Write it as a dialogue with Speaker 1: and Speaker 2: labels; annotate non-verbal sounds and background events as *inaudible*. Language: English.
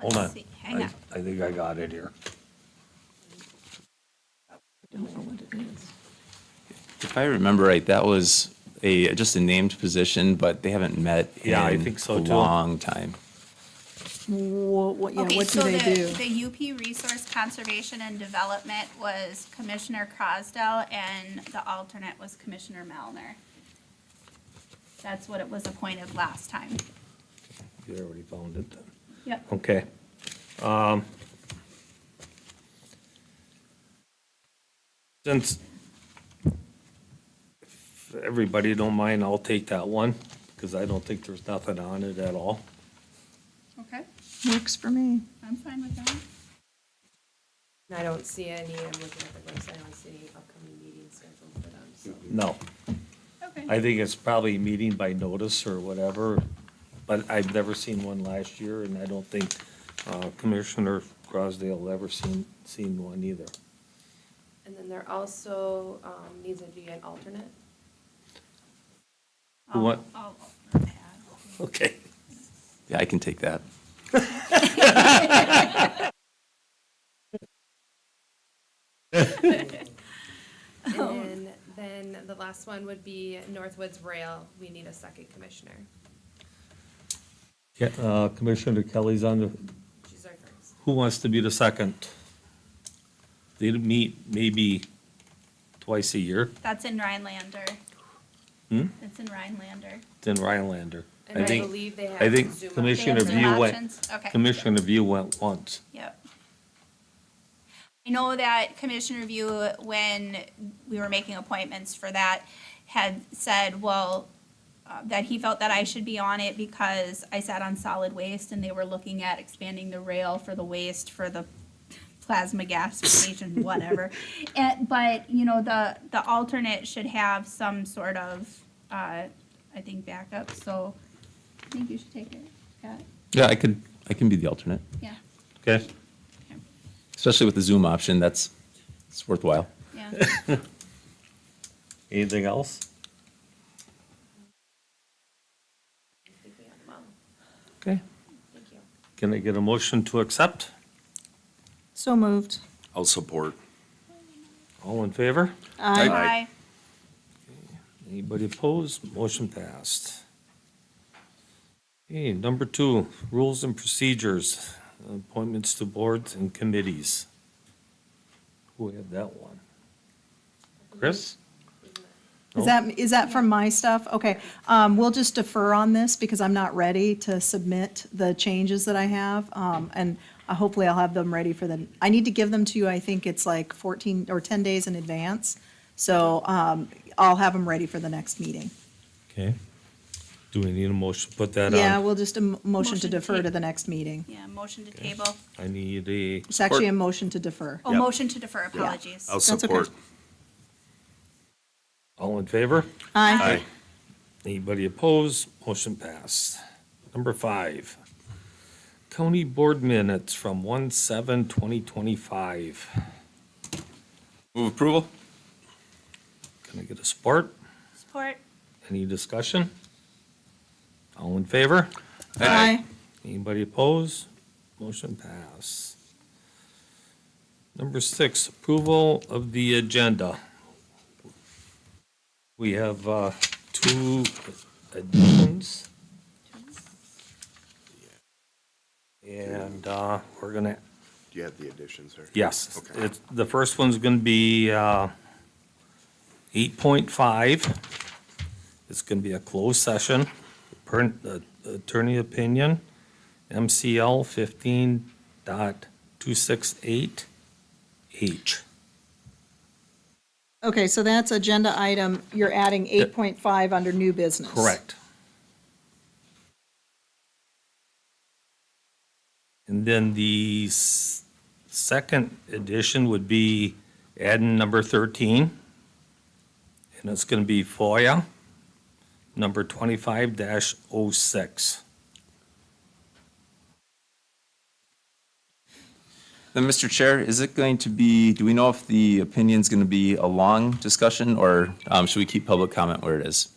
Speaker 1: Hold
Speaker 2: Let's
Speaker 1: on.
Speaker 2: see. Hang
Speaker 1: I-
Speaker 2: on.
Speaker 1: I think I got it here.
Speaker 3: Don't know what it is.
Speaker 4: If I remember right, that was a, just a named position, but they haven't met
Speaker 5: Yeah, I
Speaker 4: in
Speaker 5: think so,
Speaker 4: a
Speaker 5: too.
Speaker 4: long time.
Speaker 3: What, what, yeah,
Speaker 2: Okay,
Speaker 3: what do
Speaker 2: so
Speaker 3: they do?
Speaker 2: the, the UP Resource Conservation and Development was Commissioner Crosdell and the alternate was Commissioner Melner. That's what it was appointed last time.
Speaker 5: You already found it then.
Speaker 2: Yep.
Speaker 5: Okay. Um, Since if everybody don't mind, I'll take that one, because I don't think there's nothing on it at all.
Speaker 2: Okay,
Speaker 3: Works for me.
Speaker 2: I'm fine with that.
Speaker 6: I don't see any, I'm looking at the website, I don't see any upcoming meetings scheduled for them, so.
Speaker 5: No,
Speaker 2: Okay.
Speaker 5: I think it's probably meeting by notice or whatever, but I've never seen one last year, and I don't think uh, Commissioner Crosdale ever seen, seen one either.
Speaker 6: And then there also um, needs to be an *laughs* alternate.
Speaker 5: Who wa-
Speaker 2: I'll- I'll-
Speaker 5: Okay.
Speaker 4: Yeah, I can take that.
Speaker 6: And then, then the last one would be Northwoods Rail, we need a second commissioner.
Speaker 5: Yeah, uh, Commissioner Kelly's on the,
Speaker 6: She's our first.
Speaker 5: Who wants to be the second? They meet maybe twice a year,
Speaker 2: That's in Rhinelander.
Speaker 5: Hmm?
Speaker 2: That's in Rhinelander.
Speaker 5: then Rhinelander.
Speaker 6: And I
Speaker 5: think-
Speaker 6: believe they have
Speaker 5: I think
Speaker 6: Zoom.
Speaker 2: They have
Speaker 5: Commissioner
Speaker 2: some
Speaker 5: View went,
Speaker 2: options. Okay.
Speaker 5: Commissioner View went once.
Speaker 2: Yep. I know that Commissioner Review, when we were making appointments for that, had said, well, uh, that he felt that I should be on it because I sat on solid waste and they were looking at expanding the rail for the waste for the plasma gasification, whatever. And, but, you know, the, the alternate should have some sort of, uh, I think backup, so I think you should take it, Pat.
Speaker 4: Yeah, I could, I can be the alternate,
Speaker 2: Yeah,
Speaker 5: Okay.
Speaker 4: especially with the Zoom option. That's, it's worthwhile.
Speaker 2: yeah.
Speaker 5: Anything else?
Speaker 6: I think we have them all.
Speaker 4: Okay.
Speaker 6: Thank you.
Speaker 5: Can I get a motion to accept?
Speaker 3: So moved.
Speaker 1: I'll support.
Speaker 5: All in favor?
Speaker 3: Aye.
Speaker 2: Bye.
Speaker 5: Anybody opposed? Motion passed. Okay, number two, rules and procedures, appointments to boards and committees. Who had that one? Chris?
Speaker 3: Is that, is that from my stuff? Okay, um, we'll just defer on this because I'm not ready to submit the changes that I have. Um, and uh, hopefully I'll have them ready for the, I need to give them to you, I think it's like fourteen or ten days in advance. So, um, I'll have them ready for the next meeting.
Speaker 5: Okay. Do we need a motion to put that on?
Speaker 3: Yeah, we'll just, a m- motion
Speaker 2: Motion
Speaker 3: to
Speaker 2: to
Speaker 3: defer to
Speaker 2: table.
Speaker 3: the next meeting.
Speaker 2: Yeah, motion to table.
Speaker 5: I need a,
Speaker 3: It's actually a motion to defer.
Speaker 2: Oh, motion to defer, apologies.
Speaker 1: I'll
Speaker 3: That's okay.
Speaker 1: support.
Speaker 5: all in favor?
Speaker 3: Aye.
Speaker 1: Aye.
Speaker 5: Anybody opposed? Motion passed. Number five, county board minutes from one seven twenty twenty-five.
Speaker 4: Move approval?
Speaker 5: Can I get a support?
Speaker 2: Support.
Speaker 5: Any discussion? All in favor?
Speaker 3: Aye.
Speaker 5: Anybody opposed? Motion passed. Number six, approval of the agenda. We have uh, two additions. And uh, we're gonna,
Speaker 7: Do you have the additions here?
Speaker 5: yes,
Speaker 7: Okay.
Speaker 5: it's, the first one's gonna be uh, 8.5. It's gonna be a closed session, per- uh, attorney opinion, MCL 15 dot 268H.
Speaker 3: Okay, so that's agenda item, you're adding eight point five under new business.
Speaker 5: Correct. And then the s- second edition would be adding number 13. And it's going to be FOIA, number 25-06.
Speaker 4: Then, Mr. Chair, is it going to be, do we know if the opinion's going to be a long discussion or um, should we keep public comment where it is?